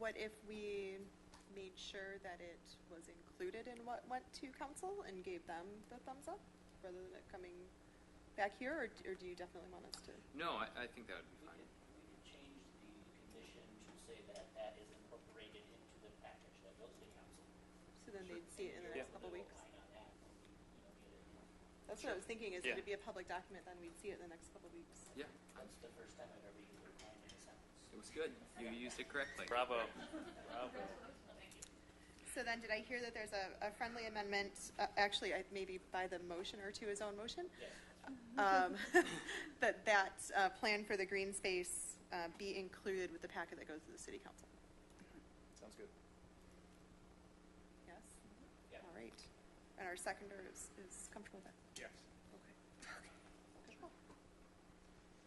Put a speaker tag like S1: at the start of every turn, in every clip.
S1: what if we made sure that it was included in what went to council and gave them the thumbs up rather than it coming back here, or, d- or do you definitely want us to?
S2: No, I, I think that would be
S3: We
S2: fine.
S3: could, we could change the condition to say that that is incorporated into the package that goes to council.
S1: So then they'd see it in the next couple weeks.
S3: Line on that, you know, get it.
S1: That's what I was thinking, is that
S2: Yeah.
S1: it'd be a public document, then we'd see it in the next couple weeks.
S2: Yeah,
S3: That's the first time I've ever used a line in a sentence.
S2: it was good. You used it correctly.
S4: Bravo. Bravo.
S1: So then, did I hear that there's a, a friendly amendment, uh, actually, I- maybe by the motion or to his own motion?
S3: Yes,
S1: um, That that uh, plan for the green space uh, be included with the packet that goes to the city council?
S4: Sounds good.
S1: Yes?
S3: yeah.
S1: All right. And our seconder is, is comfortable with that?
S4: Yes.
S1: Good call.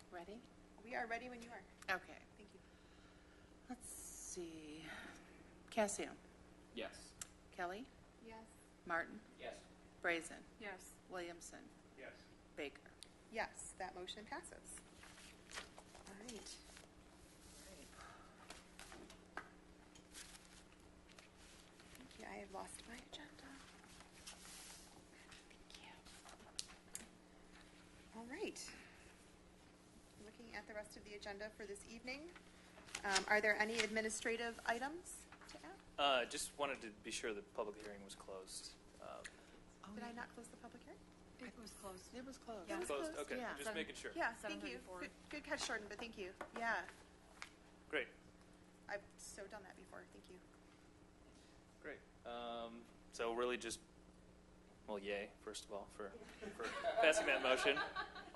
S5: Ready?
S1: We are ready when you are.
S5: Okay.
S1: Thank you.
S5: Let's see. Cassian,
S2: Yes.
S5: Kelly,
S1: Yes.
S5: Martin,
S3: Yes,
S5: Brazen,
S6: Yes.
S5: Williamson,
S4: Yes.
S5: Baker.
S1: Yes, that motion passes. All right. Thank you, I have lost my agenda. Thank you. All right. Looking at the rest of the agenda for this evening, um, are there any administrative items to add?
S4: Uh, just wanted to be sure the public hearing was closed. Um,
S1: Did I not close the public hearing?
S6: It was closed.
S5: Oh, It was close.
S1: Yeah. It was
S4: Closed,
S1: closed,
S4: okay,
S5: yeah.
S4: just making sure.
S1: Yeah, thank you.
S6: 7:34.
S1: Good- Good catch, Jordan, but thank you. Yeah,
S4: Great,
S1: I've so done that before, thank you.
S4: great. Um, so really just, well, yay, first of all, for, for passing that motion.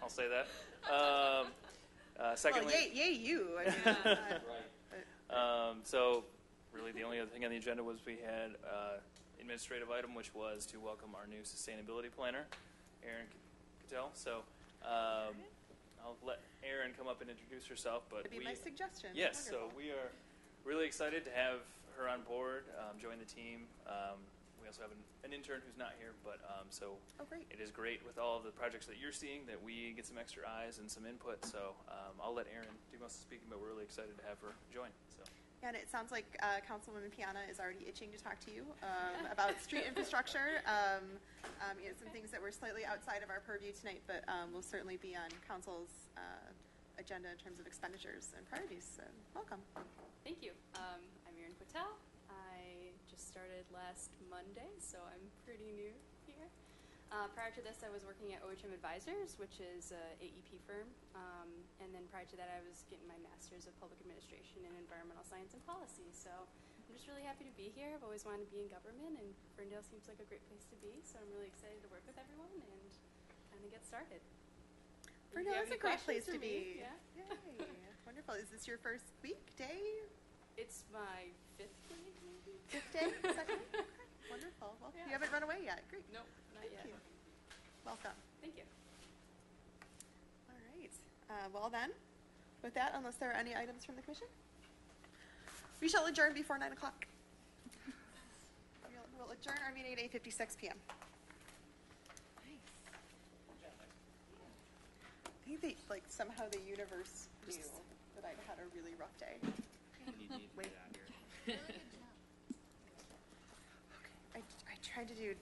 S4: I'll say that. Um, uh, secondly.
S1: Well, yay, yay you. I mean, uh,
S3: right.
S1: but-
S4: Um, so, really, the only other thing on the agenda was we had uh, administrative item, which was to welcome our new sustainability planner, Erin Cattell. So, um, I'll let Erin come up and introduce herself. But
S1: That'd be
S4: we,
S1: my suggestion.
S4: yes, so
S1: Wonderful.
S4: we are really excited to have her on board, um, join the team. Um, we also have an, an intern who's not here, but um, so
S1: Oh, great.
S4: it is great with all of the projects that you're seeing that we get some extra eyes and some input. So um, I'll let Erin do most of the speaking, but we're really excited to have her join. So
S1: And it sounds like uh, Councilwoman Piana is already itching to talk to you um, about street infrastructure. Um, um, you know, some things that were slightly outside of our purview tonight, but um, will certainly be on council's uh, agenda in terms of expenditures and priorities. So, welcome.
S7: Thank you. Um, I'm Erin Quatel. I just started last Monday, so I'm pretty new here. Uh, prior to this, I was working at OHM Advisors, which is a AEP firm, um, and then prior to that, I was getting my master's of public administration in environmental science and policy. So I'm just really happy to be here. I've always wanted to be in government, and Ferndale seems like a great place to be. So I'm really excited to work with everyone and kind of get started. If you
S1: Bruno,
S7: have
S1: it's a
S7: any
S1: great place
S7: questions
S1: to
S7: for
S1: be.
S7: me, yeah.
S1: Yay. Wonderful. Is this your first week, day?
S7: It's my fifth week, maybe.
S1: Fifth day? Second? Okay. Wonderful. Well,
S7: Yeah.
S1: you haven't run away yet. Great.
S7: Nope, not
S1: Thank
S7: yet.
S1: you. Welcome.
S7: Thank you.
S1: All right, Uh, well then, with that, unless there are any items from the commission, we shall adjourn before nine o'clock. We'll- We'll adjourn our meeting at eight fifty-six PM. I think they, like, somehow the universe knew that I had a really rough day.
S2: You need to get out of here.
S1: I, I tried to do